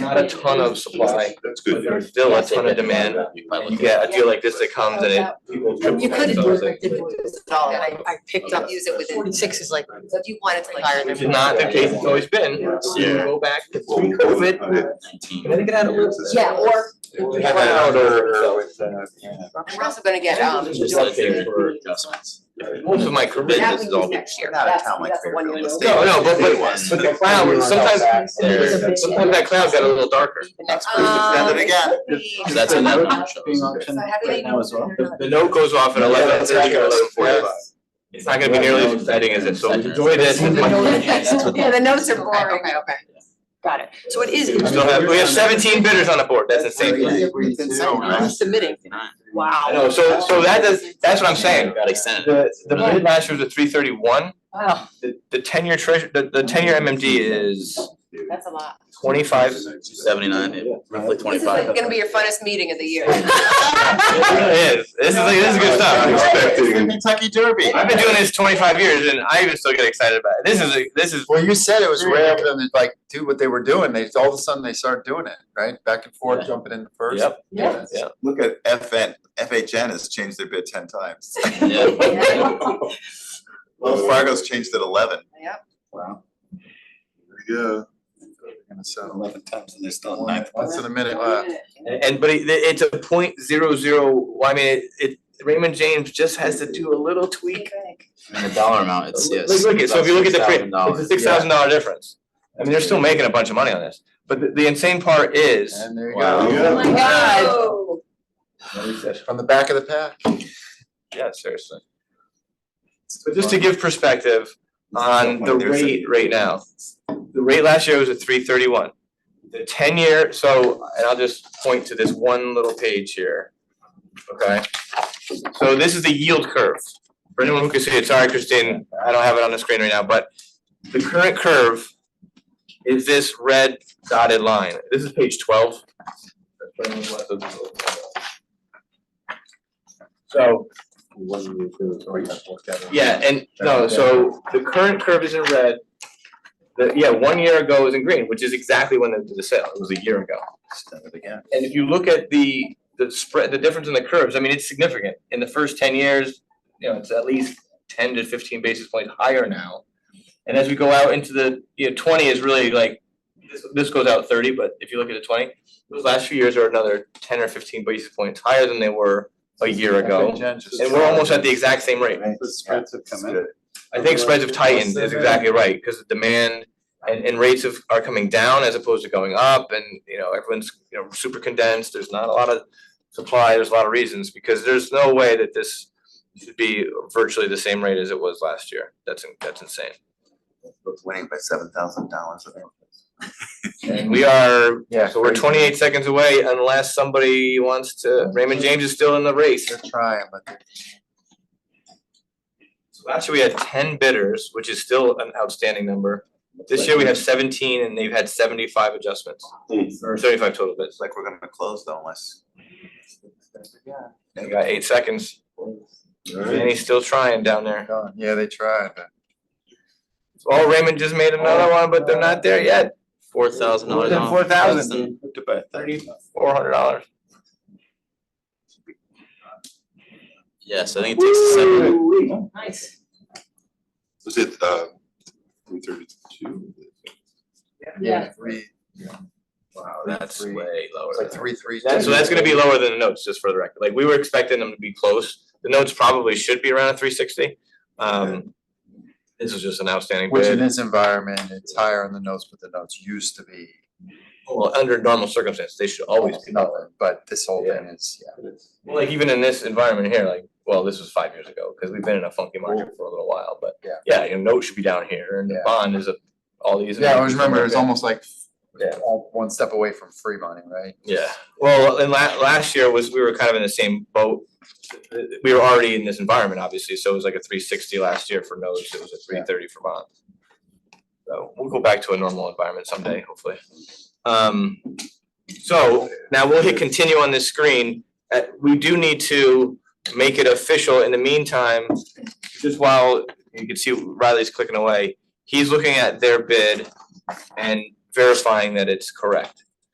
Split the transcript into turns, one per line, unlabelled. not a ton of supply,
That's
but
good.
there's still a ton of demand. And you get a deal like this that comes and it, people triple.
You could
so it's like-
have did this at all, and I, I picked up, use it within. Forty-six is like, so if you wanted to like. hire them-
Which is not the case it's always been. You
Yeah.
Go back to pre-COVID. And I think it had a little.
Yeah, or,
It had that order. uh,
and we're also gonna get, um.
Just like they were- Most of my career,
That
this
we
is
use
all.
next year,
Not a
that's,
town like
that's the one
Fairfield
you're.
Estate.
No, no, but but
Yes.
but the cloud, sometimes
There.
sometimes that cloud got a little darker.
That's
pretty
Um,
extended again.
That's another
So how do they?
Right now as well.
The note goes off at eleven thirty or eleven forty-five. It's not gonna be nearly as exciting as it, so enjoy this.
Yeah, the notes are boring. Okay, okay. Got it. So it is.
We still have, we have seventeen bidders on the board, that's insane.
It's insane,
You're
right?
Submitting. Wow.
I know, so so that does, that's what I'm saying.
Got extended.
The the bid last year was a three thirty-one,
Wow,
the the ten-year treasure, the the ten-year MMD is
that's a lot.
twenty-five.
Seventy-nine, roughly
This is like
twenty-five.
gonna be your funnest meeting of the year.
It really is, this is like, this is good stuff.
Expecting Kentucky Derby.
I've been doing this twenty-five years and I even still get excited about it. This is, a- this is,
Well, you said it was rare for them to like do what they were doing, they, all of a sudden they started doing it, right, back and forth,
Yeah.
jumping in first.
Yep.
Yeah.
Yeah.
Look at FN, FHN has changed their bid ten times.
Yeah.
Wells Fargo's changed it eleven.
Yep.
Wow.
Yeah.
And so,
Eleven times and they're still in
one-
ninth.
once in a minute left.
and- and but it it's a point zero zero, well, I mean, it- it Raymond James just has to do a little tweak.
And the dollar amount, it's, yes.
Like, look at, so if you look at the print,
$6,000.
it's a six thousand dollar difference. I mean, they're still making a bunch of money on this, but the the insane part is.
And there you
Wow.
go,
Oh my god.
from the back of the pack.
Yeah, seriously. But just to give perspective on the rate right now, the rate last year was at three thirty-one. The ten-year, so, and I'll just point to this one little page here, okay? So this is the yield curve. For anyone who can see it, sorry, Christine, I don't have it on the screen right now, but the current curve is this red dotted line. This is page twelve. So, yeah, and no, so the current curve is in red. The, yeah, one year ago was in green, which is exactly when they did the sale, it was a year ago. And if you look at the, the spread, the difference in the curves, I mean, it's significant. In the first ten years, you know, it's at least ten to fifteen basis points higher now. And as we go out into the, you know, twenty is really like, this, this goes out thirty, but if you look at the twenty, those last few years are another ten or fifteen basis points higher than they were a year ago. And we're almost at the exact same rate. I think spreads have tightened is exactly right, because the demand and, and rates of, are coming down as opposed to going up and, you know, everyone's, you know, super condensed, there's not a lot of supply, there's a lot of reasons, because there's no way that this should be virtually the same rate as it was last year. That's, in- that's insane.
Winning by seven thousand dollars.
And we are,
Yeah.
so we're
crazy.
twenty-eight seconds away unless somebody wants to, Raymond James is still in the race.
They're trying, but they're
So Last year we had ten bidders, which is still an outstanding number. This year we have seventeen and they've had seventy-five adjustments. Or seventy-five total bids.
It's like we're gonna close though unless.
We got eight seconds, and he's still trying down there.
gone, yeah, they tried, but.
Oh, Raymond just made another one, but they're not there yet.
Four thousand dollars
Then
off.
four thousand.
Less than-
Thirty-four hundred dollars.
Yes, I think it takes a seven.
Nice.
Was it, uh, three thirty-two?
Yeah.
Three,
Wow, that's
Three.
way lower.
it's like
than-
three, three.
That- So that's gonna be lower than the notes, just for the record. Like, we were expecting them to be close. The notes probably should be around three sixty. Um, this is just an outstanding
Which in
bid.
this environment, it's higher on the notes, but the notes used to be.
Well, under normal circumstances, they should always be lower.
Nothing, But this whole thing is, yeah.
Well, like even in this environment here, like, well, this was five years ago, because we've been in a funky market for a little while, but
Yeah.
yeah, your note should be down here and the
Yeah.
bond is a, all these.
Yeah, I always remember, it was almost like
Yeah.
all one step away from free money, right?
Yeah, well, and la- last year was, we were kind of in the same boat. We were already in this environment, obviously, so it was like a three sixty last year for notes, it was a three thirty for bonds. So we'll go back to a normal environment someday, hopefully. Um, so now we'll hit continue on this screen. Uh, we do need to make it official. In the meantime, just while you can see Riley's clicking away, he's looking at their bid and verifying that it's correct.